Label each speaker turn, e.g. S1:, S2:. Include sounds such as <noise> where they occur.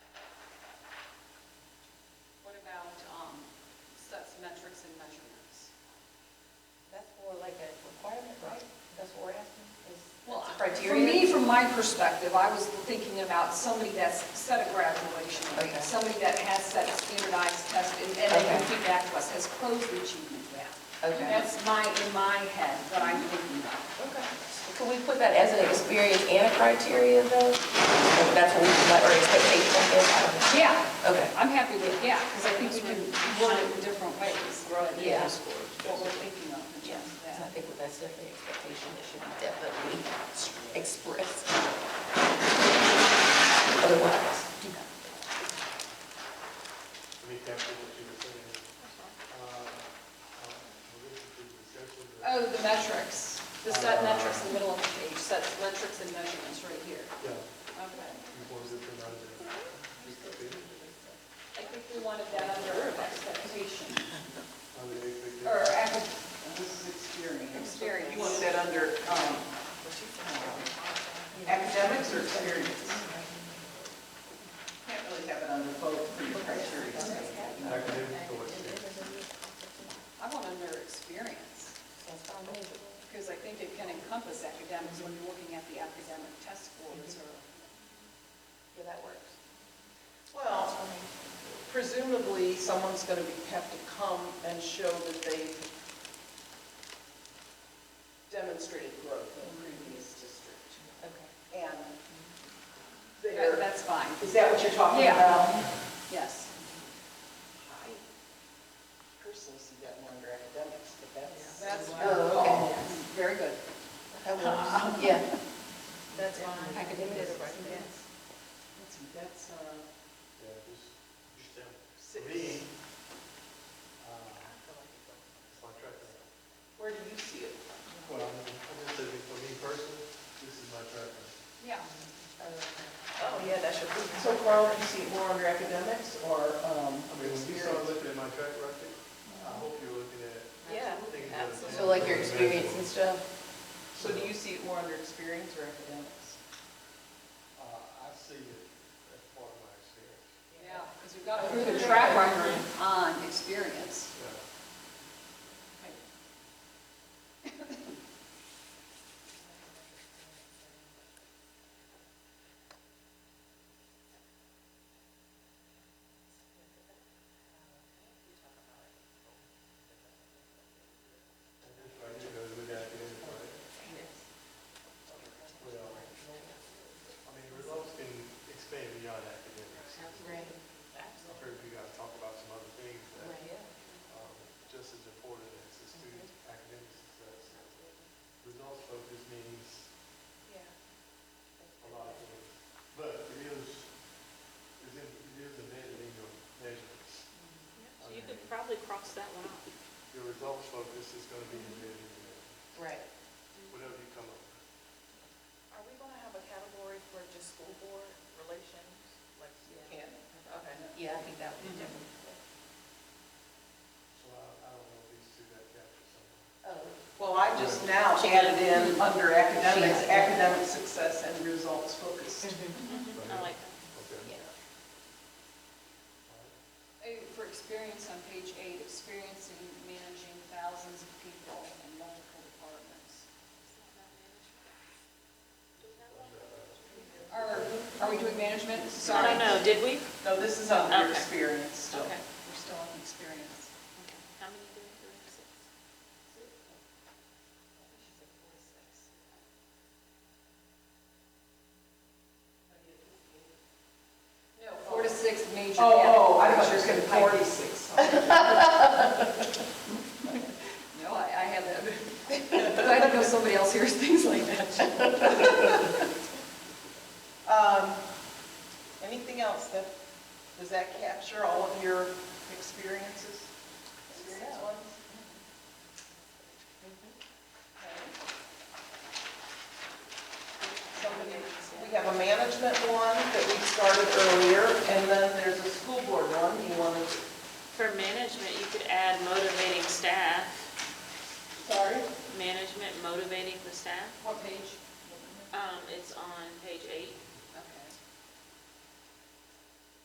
S1: metrics and measurements.
S2: That's for like a requirement, right? That's what we're asking, is
S3: Well,
S2: that's a
S3: for
S2: criteria?
S3: me, from my perspective, I was thinking about somebody that's set a graduation
S2: Okay.
S3: rate, somebody that has set a standardized test, and and they can
S2: Okay.
S3: feedback to us, has closed the achievement gap.
S2: Okay.
S3: That's my, in my head, what I'm thinking about.
S2: Okay. Could we put that as an experience and a criteria though? Or That's what we, like, or expectation, I guess, I don't know.
S3: Yeah,
S2: Okay.
S3: I'm happy with, yeah, because I think we can word it in different ways,
S2: Right, yeah.
S3: what we're thinking of, yeah.
S2: So I think with that's definitely expectation, it should be definitely expressed. Otherwise,
S4: Make that for what you were saying. Uh, uh, we're going to do the section
S3: Oh,
S4: that-
S3: the metrics, the
S2: Uh,
S3: set metrics in the middle of the page, set metrics and measurements right here.
S4: Yeah,
S3: Okay.
S4: you boys have been out there.
S3: I think we wanted that under expectation,
S4: How they expect
S3: or
S4: that.
S3: ac-
S5: This is experience.
S3: experience.
S5: You want that under um, academics or experience? Can't really have it under both for your criteria.
S4: Academic selection.
S3: I want under experience,
S2: that's fine, maybe.
S3: because I think it can encompass academics when you're looking at the academic test scores or.
S2: Yeah, that works.
S5: Well, presumably, someone's going to have to come and show that they've demonstrated growth in the previous district.
S2: Okay.
S5: And
S3: That-
S5: they're,
S3: That's fine,
S5: is that what you're talking
S3: Yeah.
S5: about?
S3: yes.
S5: I personally see that more under academics, but that's.
S3: That's
S2: Oh,
S3: your
S2: okay.
S3: call. Very good.
S2: That
S5: <laughs>
S2: works, yeah.
S6: That's fine.
S2: Academic is right.
S5: Let's see, that's, uh,
S4: Yeah, just, just them. For
S5: six.
S4: me, uh, it's my track record.
S5: Where do you see it?
S4: Well, I'm just saying, for me personally, this is my track record.
S3: Yeah.
S5: Oh, yeah, that should be. So Carl, do you see it more under academics or, um,
S4: I mean, when you start looking at my track record, I hope you're looking at
S6: Yeah.
S4: things that.
S6: Absolutely.
S2: So like your experience and stuff?
S5: So do you see it more under experience or academics?
S4: Uh, I see it as part of my experience.
S3: Yeah, because we've got to prove the track record on experience.
S4: Yeah. And this right here goes with that, is right? Well, I mean, results can expand beyond academics. I've heard you guys talk about some other things that um, just as important as the student academic success. Results focus means a lot of things, but it is, it is, it is a measuring of measurements.
S6: So you could probably cross that one off.
S4: Your results focus is gonna be in measuring, of
S2: Right.
S4: whatever you come up with.
S6: Are we going to have a category for just school board relations? Like, you
S5: Yeah.
S6: can, okay.
S2: Yeah, I think that would be different.
S4: So I, I don't know if these two got captured somewhere.
S2: Oh,
S5: Well, I just now added in under academics, academic success and results focused.
S6: I like that.
S4: Okay.
S2: yeah.
S3: Eh, For experience on page eight, experiencing managing thousands of people in multiple departments. Are, are we doing management?
S6: I
S3: Sorry.
S6: don't know, did we?
S5: No, this is under
S6: Okay.
S5: experience still.
S6: Okay.
S3: We're still on experience.
S6: How many do we have? Six?
S3: No, four to six major.
S5: Oh, oh, I
S3: categories.
S5: thought you were saying forty-six.
S3: No, I, I have <laughs> that. Glad to know somebody else hears things like that.
S5: Um, Anything else that, does that capture all of your experiences? Experience ones? Okay. Somebody, we have a management one that we started earlier, and then there's a school board one, you want to,
S6: For management, you could add motivating staff.
S5: sorry?
S6: Management motivating the staff.
S3: What page?
S6: Um, it's on page eight.